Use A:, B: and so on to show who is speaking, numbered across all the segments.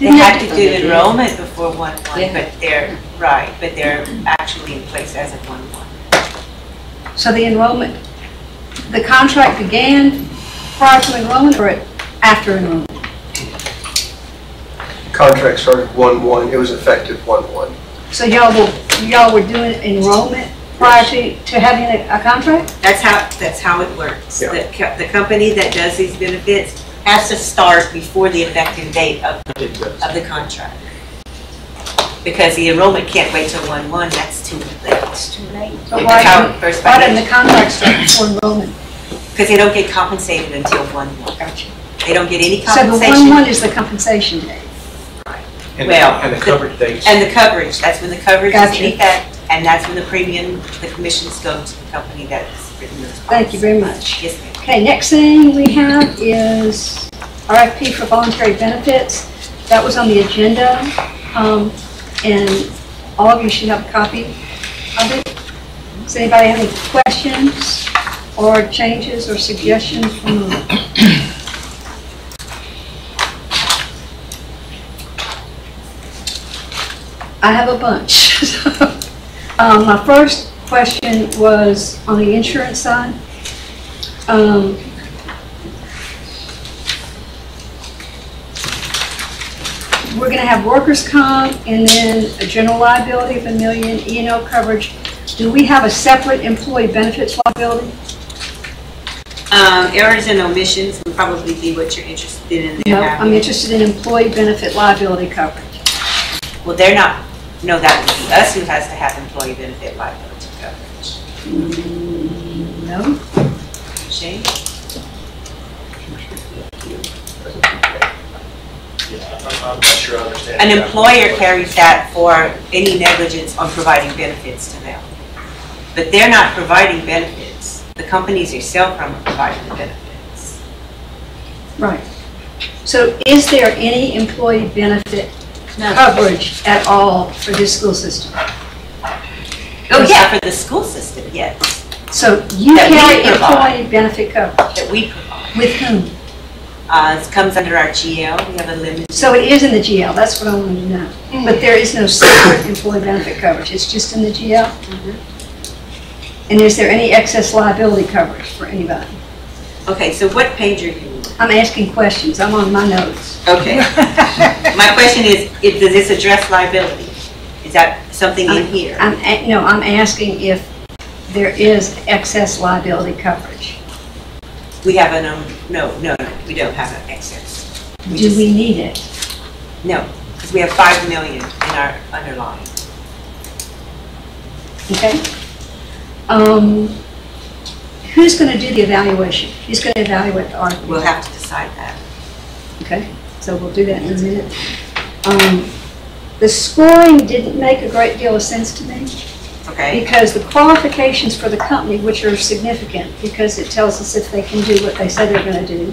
A: had to do
B: From the-
A: enrollment before one one,
B: Yeah.
A: but they're, right, but they're actually in place as of one one.
B: So the enrollment, the contract began prior to enrollment or at- after enrollment?
C: Contract started 1/1, it was effective 1/1.
B: So y'all were, y'all were doing enrollment prior to, to having a, a contract?
A: That's how, that's how it works.
C: Yeah.
A: The, co- the company that does these benefits has to start before the effective date of, of the contract. Because the enrollment can't wait till one one, that's too late.
B: But
A: That's how
B: why,
A: it first
B: why didn't
A: started,
B: the contract start before enrollment?
A: because they don't get compensated until one one. They don't get any
B: So the one
A: compensation.
B: one is the compensation date.
D: And
A: Well,
D: and the
A: the-
D: covered dates.
A: And the coverage, that's when the coverage is
B: Gotcha.
A: in effect, and that's when the premium, the commissions go to the company that's written this policy.
B: Thank you very much.
A: Yes, ma'am.
B: Okay, next thing we have is RFP for voluntary benefits. That was on the agenda, um, and all of you should have a copy of it. Does anybody have any questions or changes or suggestions from the... I have a bunch. Um, My first question was on the insurance side. Um, We're gonna have workers' comp and then a general liability of a million, E and O coverage. Do we have a separate employee benefits liability?
A: Um, errors and omissions would probably be what you're interested in
B: No,
A: there
B: I'm
A: having.
B: interested in employee benefit liability coverage.
A: Well, they're not, no, that would be us who has to have employee benefit liability coverage.
B: No?
A: Shane?
E: I'm not sure I understand.
A: An employer carries that for any negligence on providing benefits to them. But they're not providing benefits. The companies yourself are providing the benefits.
B: Right. So is there any employee benefit coverage at all for this school system?
A: Oh, yeah, for the school system, yes,
B: So you
A: That we
B: carry
A: provide.
B: employee benefit coverage,
A: that we provide.
B: with whom?
A: Uh, it comes under our GL, we have a limited,
B: So it is in the GL, that's what I wanted to know. But there is no separate employee benefit coverage, it's just in the GL? And is there any excess liability coverage for anybody?
A: okay, so what page are you on?
B: I'm asking questions, I'm on my notes.
A: Okay. My question is, if, does this address liability? Is that something in here?
B: I'm, a- no, I'm asking if there is excess liability coverage.
A: We have an, um, no, no, no, we don't have an excess.
B: Do we need it?
A: No, because we have five million in our underlying.
B: Okay? Um, Who's going to do the evaluation? Who's going to evaluate the article?
A: We'll have to decide that.
B: Okay, so we'll do that in a minute. Um, The scoring didn't make a great deal of sense to me
A: Okay,
B: because the qualifications for the company, which are significant, because it tells us if they can do what they say they're going to do,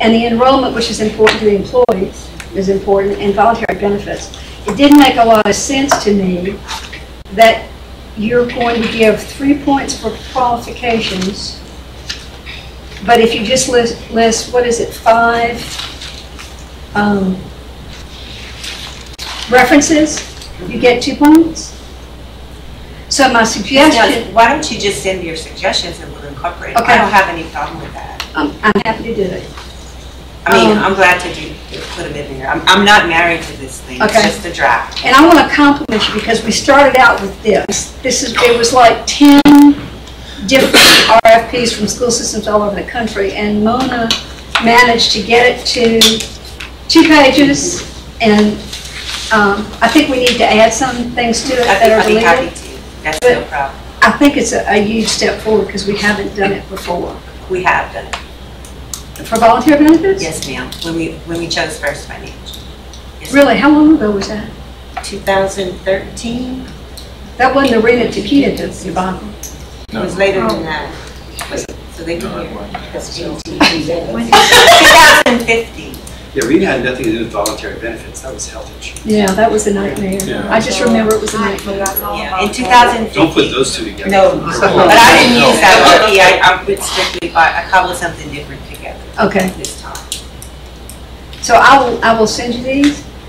B: and the enrollment, which is important to the employees, is important, and voluntary benefits. It didn't make a lot of sense to me that you're going to give three points for qualifications, but if you just list, list, what is it, five um, references, you get two points? So my suggestion.
A: Now, why don't you just send your suggestions and we'll incorporate it? I
B: Okay.
A: don't have any problem with that.
B: I'm, I'm happy to do it.
A: I mean,
B: Um,
A: I'm glad to do, put them in there. I'm, I'm not married to this thing, it's
B: Okay.
A: just a draft.
B: And I want to compliment you because we started out with this. This is, it was like 10 different RFPs from school systems all over the country. And Mona managed to get it to two pages. And um, I think we need to add some things to it
A: I
B: that
A: think
B: are
A: I'd be happy
B: deleted.
A: to, that's no
B: But-
A: problem.
B: I think it's a a huge step forward because we haven't done it before.
A: We have done it,
B: For volunteer benefits?
A: yes ma'am, when we, when we chose First Financial.
B: Really, how long ago was that?
A: 2013,
B: That wasn't the Rena Tequita debacle.
A: it was later than that. So they
D: No,
A: can
D: it
A: hear.
D: wasn't.
A: That's 2015,
F: Yeah, Rita had nothing to do with voluntary benefits, that was health insurance.
B: Yeah, that was a nightmare.
F: Yeah.
B: I just remember it was a nightmare.
A: yeah, in 2015.
F: Don't put those two together.
A: No,
F: They're
A: but
F: all-
A: I didn't use that one, yeah, I, I would strictly, I I cobbled something different together
B: Okay,
A: this time.
B: so I will, I will send you these.